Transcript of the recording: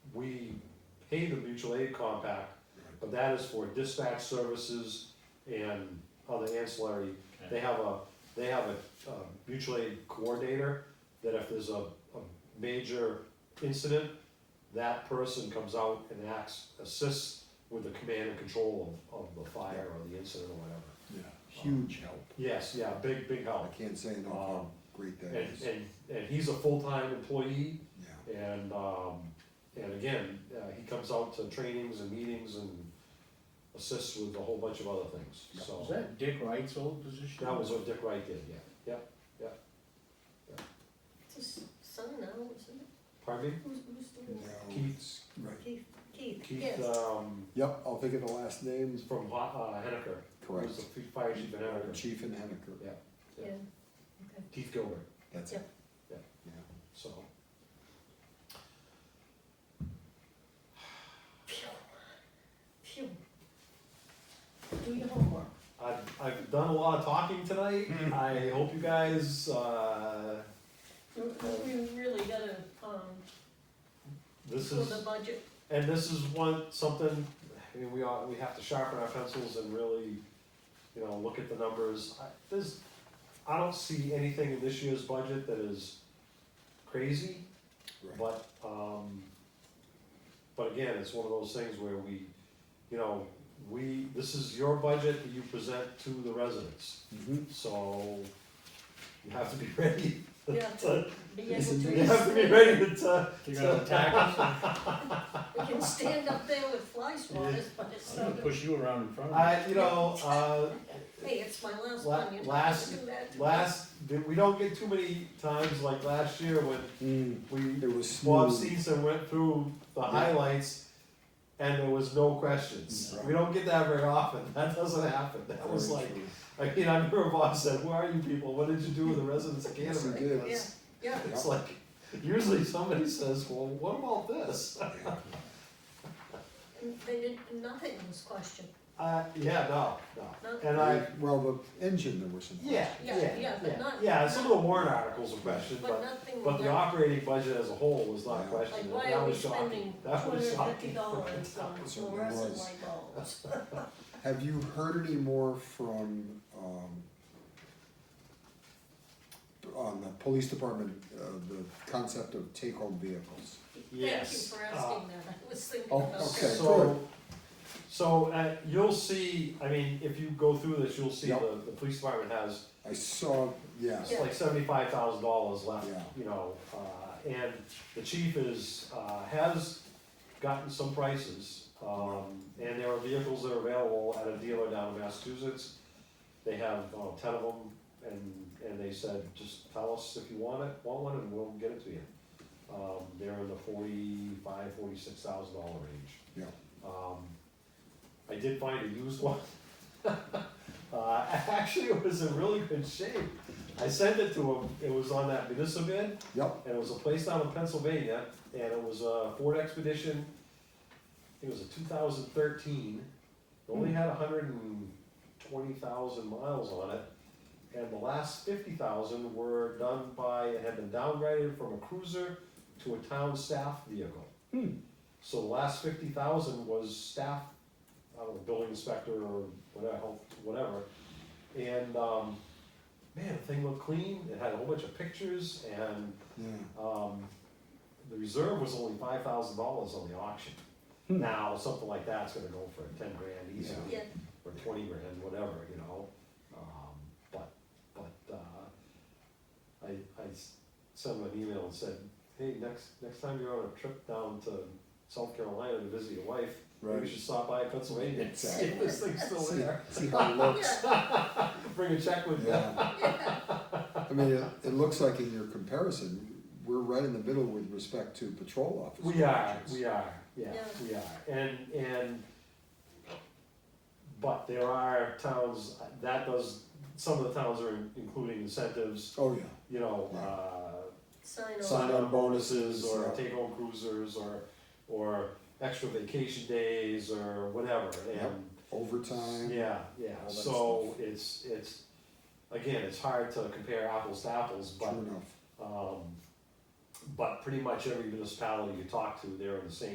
we pay the mutual aid compact, but that is for dispatch services and other ancillary. They have a, they have a, uh mutual aid coordinator, that if there's a, a major incident, that person comes out and acts, assists with the command and control of, of the fire or the incident or whatever. Yeah, Um, huge help. Oh, Yes, yeah, big, big I help. can't say enough how great that And, is. and, and he's a full-time employee, Yeah, and, um, and again, uh, he comes out to trainings and meetings and assists with a whole bunch of other things, Was so. that Dick Wright's old position? That was what Dick Wright did, yeah, yeah, It's his son now, isn't it? pardon me? Who's, who's doing it? no, Keith- it's- right. Keith, Keith, yes. Keith, um, Yep, I'll think of the last names, he's from, Ho- uh, Hennecker. He was correct. the fi- fire chief in Hennecker, Chief and Hennecker, Yeah, yeah. okay. Keith Gilbert, that's it. Yeah. Yeah, so. Phew, phew. Do your homework. I've, I've done a lot of talking tonight, I hope you guys, uh, You- you- We really gotta, um, this for is. the budget, And this is one, something, I mean, we all, we have to sharpen our pencils and really, you know, look at the numbers. I- There's, I don't see anything in this year's budget that is crazy, right. but, um, but again, it's one of those things where we, you know, we, this is your budget that you present to the residents, Mhm. so you have to be ready. Yeah. to- be able Listen, to. You have to be ready to- to, They're gonna attack us, We can stand up there with fly swatters, but it's I'm gonna not, push you around in front of me. I, you know, uh, hey, it's my last La- one, you know, last- to do that. Last, we don't get too many times like last year when Mm, we, It was Bob smooth, Stevenson went through the highlights and there was no questions. We don't get that very often, that doesn't happen, that was very like, true. I mean, I remember Bob said, who are you people, what did you do with the residents of Yes, we Canterbury? did. Yeah, yeah, It's like, usually somebody says, well, what about this? Yeah. and they didn't, nothing was questioned, Uh, yeah, no, no, and I, Well, the engine, there were some. yeah, Yeah, yeah, yeah, but yeah, not- yeah, some of the warrant articles are questioned, but but nothing But was the done. operating budget as a whole was not Yeah. questioned, Like, and why that are we was shocking, spending two that hundred was and shocking. fifty dollars on Certainly fluorescent was. light bulbs? Have you heard any more from, um, on the police department, uh, the concept of take-home vehicles? Yes, Thank you for uh, asking that, I was thinking Oh, about that. okay. So, so, uh, you'll see, I mean, if you go through this, you'll see Yep. the, the police department has, I saw, yeah, it's like seventy-five thousand dollars left, Yeah. you know, uh, and the chief is, uh, has gotten some prices, um, and there are vehicles that are available at a dealer down in Massachusetts. They have, uh, ten of them, and, and they said, just tell us if you want it, want one, and we'll get it to you. Um, they're in the forty-five, forty-six thousand dollar range. Yeah. Um, I did find a used one. Uh, actually, it was in really good shape. I sent it to him, it was on that municipal bid, yep, and it was a place down in Pennsylvania, and it was a Ford Expedition. I think it was a two thousand thirteen, it only had hundred and twenty thousand miles on it. And the last fifty thousand were done by, it had been downgraded from a cruiser to a town staff vehicle. Hmm. So the last fifty thousand was staff, I don't know, building inspector or whatever, whatever. And, um, man, the thing looked clean, it had a whole bunch of pictures and yeah. um, the reserve was only five thousand dollars on the auction. Hmm. Now, something like that's gonna go for ten grand easily, Yeah, or twenty grand, whatever, you know, um, but, but, uh, I, I s- sent him an email and said, hey, next, next time you're on a trip down to South Carolina to visit your wife, maybe Right. you should stop by Pennsylvania and see if Exactly. this thing's still See, there. see how it looks. yeah, Bring a check with you. Yeah. I mean, it, it looks like in your comparison, we're right in the middle with respect to patrol officers. We are, we are, yeah, Yeah. we are, and, and, but there are towns, that does, some of the towns are in- including incentives, Oh, yeah, you know, Yeah. uh, sign off. sign-on bonuses, or Yeah. take-home cruisers, or, or extra vacation days, or whatever, and, overtime. yeah, yeah, All that so it's, it's, again, it's hard to compare apples to apples, but, True enough. um, but pretty much every municipality you talk to, they're in the same